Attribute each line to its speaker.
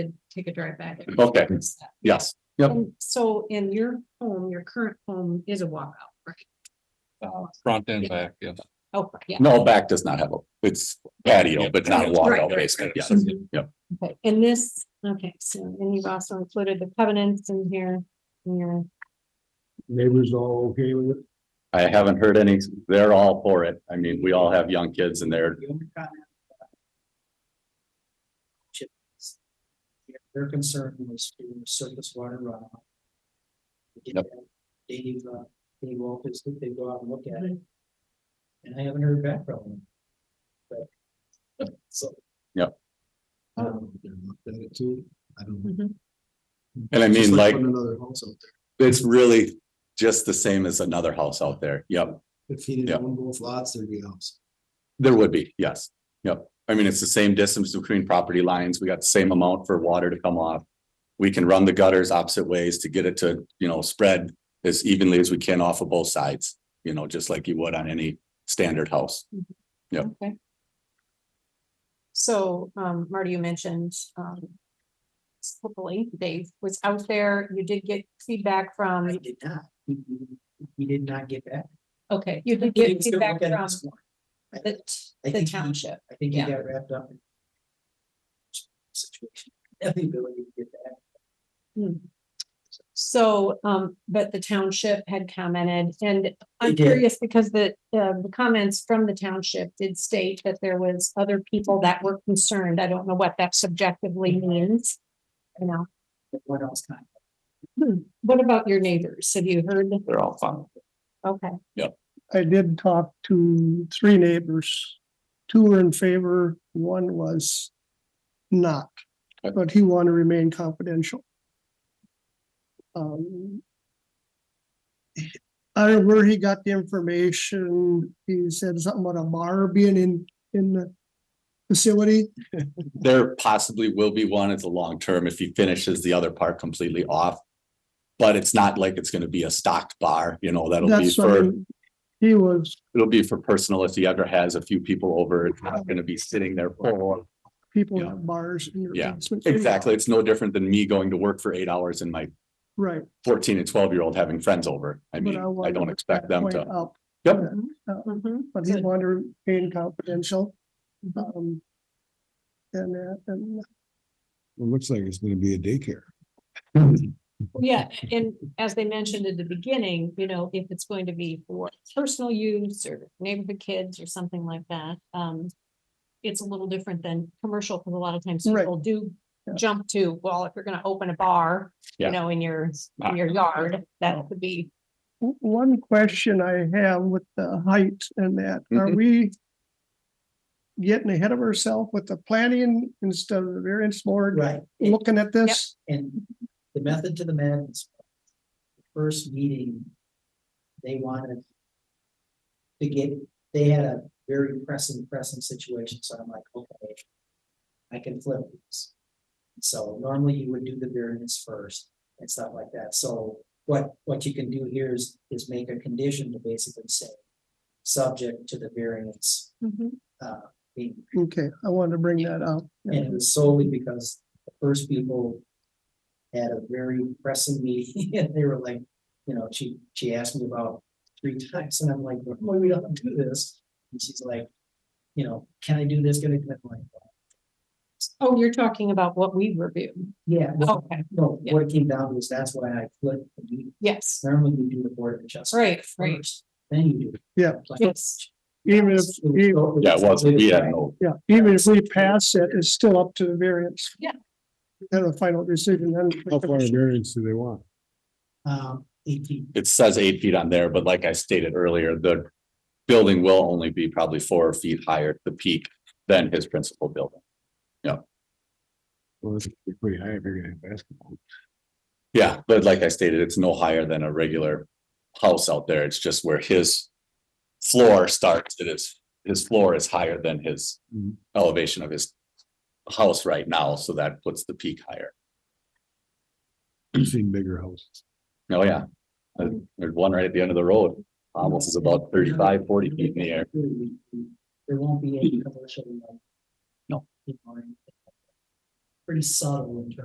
Speaker 1: take a drive back.
Speaker 2: Okay. Yes, yep,
Speaker 1: And so in your home, your current home is a walkout, right?
Speaker 2: Uh,
Speaker 3: Front and back, yes.
Speaker 1: Oh, yeah.
Speaker 2: no, back does not have a, it's patio, but not a
Speaker 1: Right,
Speaker 2: walkout
Speaker 1: right,
Speaker 2: basement, yes,
Speaker 1: Mhm.
Speaker 2: yep.
Speaker 1: Okay, and this, okay, so, and you've also included the covenants in here, in your,
Speaker 4: Neighbors all okay with it?
Speaker 2: I haven't heard any, they're all for it, I mean, we all have young kids and they're,
Speaker 5: The only comment. that I- Yeah, Their concern was to surface water runoff.
Speaker 2: Yep.
Speaker 5: Dave, uh, Dave Wolf is, they go out and look at it. And I haven't heard back from them. But, so.
Speaker 2: Yep.
Speaker 4: I
Speaker 5: Um,
Speaker 4: don't know if they're looked at it too. I don't. know.
Speaker 2: and I
Speaker 4: It's
Speaker 2: mean,
Speaker 4: just
Speaker 2: like,
Speaker 4: putting Another house out
Speaker 2: it's really just the same as another house out there, yep.
Speaker 4: there. If he
Speaker 2: Yeah.
Speaker 4: didn't own both lots, there'd be a house.
Speaker 2: There would be, yes, yep. I mean, it's the same distance between property lines. We got the same amount for water to come off. We can run the gutters opposite ways to get it to, you know, spread as evenly as we can off of both sides, you know, just like you would on any standard house. Yep.
Speaker 1: okay. So, um, Marty, you mentioned, um, hopefully Dave was out there, you did get feedback
Speaker 5: I
Speaker 1: from,
Speaker 5: did not. He- he- He did not get back.
Speaker 1: okay, you did
Speaker 5: He
Speaker 1: get
Speaker 5: was still
Speaker 1: feedback
Speaker 5: looking at
Speaker 1: from
Speaker 5: this morning. I-
Speaker 1: the,
Speaker 5: I
Speaker 1: the
Speaker 5: think he-
Speaker 1: township.
Speaker 5: I think he
Speaker 1: Yeah.
Speaker 5: got wrapped up. in Situation, the ability to get that.
Speaker 1: Hmm. So, um, but the township had commented, and I'm
Speaker 5: They did.
Speaker 1: curious because the, uh, the comments from the township did state that there was other people that were concerned. I don't know what that subjectively means. You know,
Speaker 5: but What else kind?
Speaker 1: what about your neighbors? Have you heard?
Speaker 2: They're all fun.
Speaker 1: Okay,
Speaker 6: I did talk to three neighbors. Two were in favor, one was not,
Speaker 2: Okay.
Speaker 6: but he wanted to remain confidential. Um, I don't know where he got the information. He said something about a bar being in, in the facility.
Speaker 2: There possibly will be one. It's a long term if he finishes the other part completely off. But it's not like it's gonna be a stocked bar, you know, that'll be
Speaker 6: That's what
Speaker 2: for,
Speaker 6: I'm- he was,
Speaker 2: it'll be for personal if he ever has a few people over. It's not gonna be sitting there full.
Speaker 6: people
Speaker 2: Yeah.
Speaker 6: have bars in your
Speaker 2: Yeah,
Speaker 6: basement.
Speaker 2: Exactly. It's no different than me going to work for eight hours and my
Speaker 6: Right.
Speaker 2: fourteen and twelve year old having friends over. I
Speaker 6: but
Speaker 2: mean, I
Speaker 6: wanted
Speaker 2: don't
Speaker 6: to
Speaker 2: expect them
Speaker 6: point
Speaker 2: to.
Speaker 6: out
Speaker 2: Yep.
Speaker 6: that, uh,
Speaker 1: mhm,
Speaker 6: but he
Speaker 1: Good.
Speaker 6: wanted to remain confidential. Um, and, uh, and
Speaker 4: It looks like it's gonna be a daycare.
Speaker 1: yeah, and as they mentioned at the beginning, you know, if it's going to be for personal use or neighborhood kids or something like that, um. It's a little different than commercial, because a lot of times
Speaker 6: Right.
Speaker 1: people do
Speaker 6: Yeah.
Speaker 1: jump to, well, if you're gonna open a bar,
Speaker 2: Yeah.
Speaker 1: you know, in your, in your yard, that would be.
Speaker 6: o- one question I have with the height and that, are we getting ahead of ourselves with the planning instead of the variance board
Speaker 5: Right. and-
Speaker 6: looking at this?
Speaker 5: And the method to the madness. the First meeting. They wanted. To get, they had a very pressing, pressing situation, so I'm like, okay. I can flip these. So normally you would do the variance first and stuff like that, so what, what you can do here is, is make a condition to basically say. Subject to the variance,
Speaker 6: Mm-hmm.
Speaker 5: uh, being
Speaker 6: Okay, I wanted to bring that up.
Speaker 5: and it was solely because the first people had a very pressing meeting and they were like, you know, she, she asked me about three times and I'm like, well, we don't do this. And she's like, you know, can I do this? Gonna commit like,
Speaker 1: Oh, you're talking about what we reviewed.
Speaker 5: yeah, no,
Speaker 1: Okay,
Speaker 5: no,
Speaker 1: Oh, yeah.
Speaker 5: what it came down to is that's why I flipped. the meeting.
Speaker 1: yes,
Speaker 5: Normally you do the board of adjustment
Speaker 1: right, right,
Speaker 5: first, then you do.
Speaker 6: Yeah.
Speaker 5: Like-
Speaker 1: yes,
Speaker 6: Even if,
Speaker 5: It was
Speaker 6: e-
Speaker 5: totally-
Speaker 2: Yeah, it was, we had no,
Speaker 6: yeah, even if we pass it, it's still up to the variance.
Speaker 1: Yeah.
Speaker 6: Then a final decision, then.
Speaker 4: How far in variance do they want?
Speaker 5: Um, eighteen.
Speaker 2: it says eight feet on there, but like I stated earlier, the building will only be probably four feet higher, the peak than his principal building.
Speaker 4: Well, it's pretty high if you're gonna have basketball.
Speaker 2: Yeah, but like I stated, it's no higher than a regular house out there. It's just where his floor starts. It is, his floor is higher than his
Speaker 4: Mhm.
Speaker 2: elevation of his house right now, so that puts the peak higher.
Speaker 4: You've seen bigger houses.
Speaker 2: Oh, yeah. Uh, There's one right at the end of the road. Almost is about 35, 40 feet in the air.
Speaker 5: There won't be any commercial. like,
Speaker 2: No.
Speaker 5: you know, or anything. pretty subtle in terms